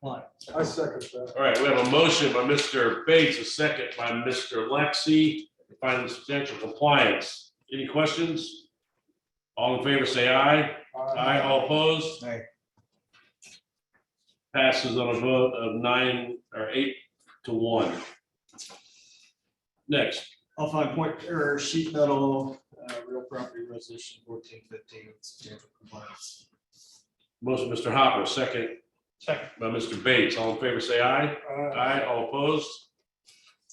compliance. I second that. All right, we have a motion by Mr. Bates, a second by Mr. Lexi, finding substantial compliance. Any questions? All in favor, say aye. Aye, all opposed? Aye. Passes on a vote of nine or eight to one. Next, I'll find point, or sheet metal, uh, real property resolution fourteen fifteen, substantial compliance. motion Mr. Hopper, second Second. by Mr. Bates. All in favor, say aye. Aye, all opposed?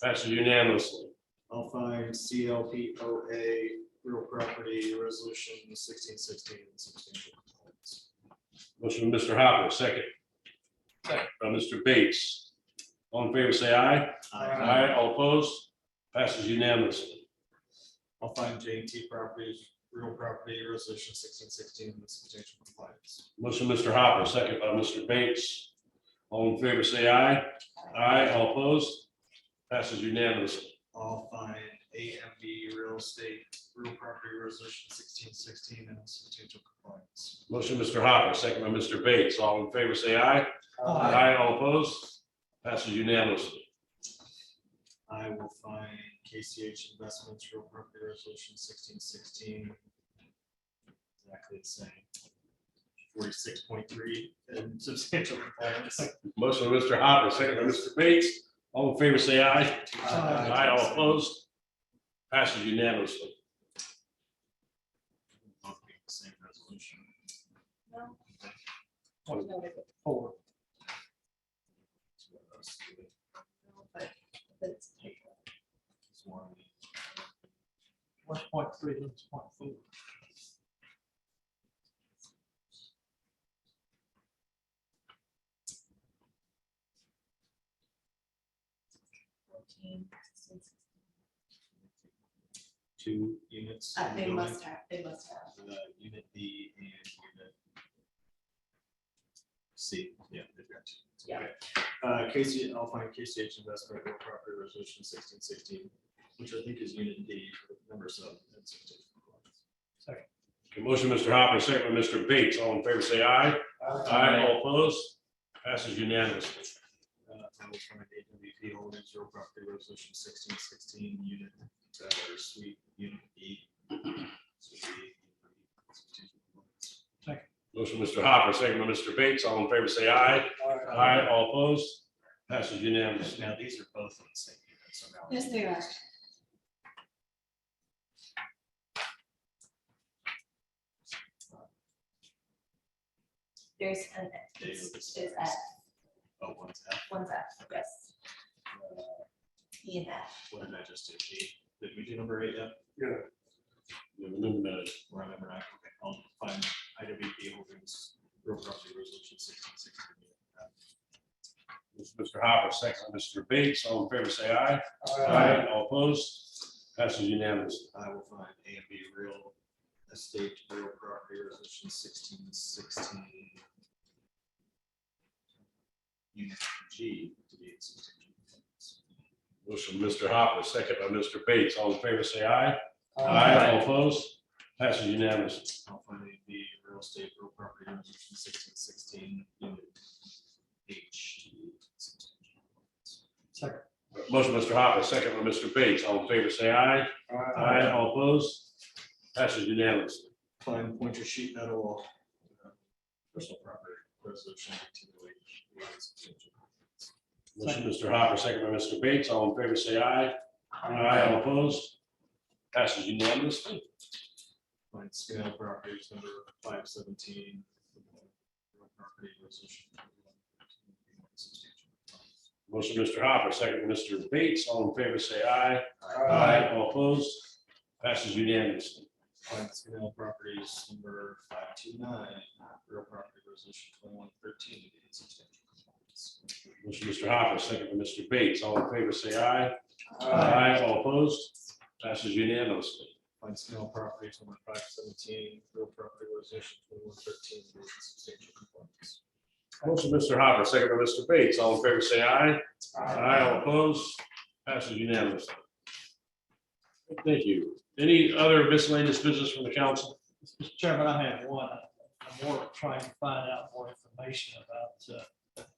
Passes unanimously. I'll find CLPOA, real property resolution sixteen sixteen, substantial compliance. Motion by Mr. Hopper, second. Second. By Mr. Bates. All in favor, say aye. Aye, all opposed? Passes unanimously. I'll find J and T properties, real property resolution sixteen sixteen, substantial compliance. Motion, Mr. Hopper, second by Mr. Bates. All in favor, say aye. Aye, all opposed? Passes unanimously. I'll find AMB real estate, real property resolution sixteen sixteen, and substantial compliance. Motion, Mr. Hopper, second by Mr. Bates. All in favor, say aye. Aye, all opposed? Passes unanimously. I will find KCH Investments, real property resolution sixteen sixteen. Exactly the same. Forty-six point three and substantial compliance. Motion, Mr. Hopper, second by Mr. Bates. All in favor, say aye. Aye. Aye, all opposed? Passes unanimously. Both being the Same resolution. No, Four. but that's- One point three, one point four. Two units. in Uh, the They building. must have, they must have. Uh, Unit B and unit. C, yeah, they've got two. Yeah. Okay. Uh, KC, I'll find KCH investment real property resolution sixteen sixteen, which I think is unit D, number seven. that's it. Okay, Motion, Mr. Hopper, second by Mr. Bates. All in favor, say aye. Aye, all opposed? Passes unanimously. Uh, I will find AWP holdings real property resolution sixteen sixteen, unit, uh, or suite, unit E. Motion, Mr. Hopper, second by Mr. Bates. All in favor, say aye. Aye, all opposed? Passes unanimously. Now, these are both in the same unit, so now. Yes, they are. There's an, it's, it's F, Oh, one's F, one's F, yes, uh, E and F. What did I just do? G? Did we do number eight yet? We've eliminated. Or number nine? Okay, I'll find IWP holdings, real property resolution sixteen sixteen. Motion, Mr. Hopper, second by Mr. Bates. All in favor, say aye. All opposed? Passes unanimously. I will find A and B real estate, real property resolution sixteen sixteen. Unit G to be in substantial. compliance. Motion, Mr. Hopper, second by Mr. Bates. All in favor, say aye. Aye, all opposed? Passes unanimously. I'll find A, B, real estate, real property resolution sixteen sixteen, unit H to be in substantial. compliance. Motion, Mr. Hopper, second by Mr. Bates. All in favor, say aye. Aye, all opposed? Passes unanimously. Find pointer sheet metal. uh, Personal property resolution. 1908. Motion, Mr. Hopper, second by Mr. Bates. All in favor, say aye. Aye, all opposed? Passes unanimously. Find scale properties number five seventeen. Property resolution. Motion, Mr. Hopper, second by Mr. Bates. All in favor, say aye. All opposed? Passes unanimously. Find scale properties number five two nine, real property resolution twenty-one thirteen. to be in substantial compliance. Motion, Mr. Hopper, second by Mr. Bates. All in favor, say aye. Aye. All opposed? Passes unanimously. Find scale properties number five seventeen, real property resolution twenty-one thirteen. to be in substantial compliance. Motion, Mr. Hopper, second by Mr. Bates. All in favor, say aye. Aye, all opposed? Passes unanimously. Thank you. Any other miscellaneous business from the council? Mr. Chairman, I have one. I'm more trying to find out more information about uh,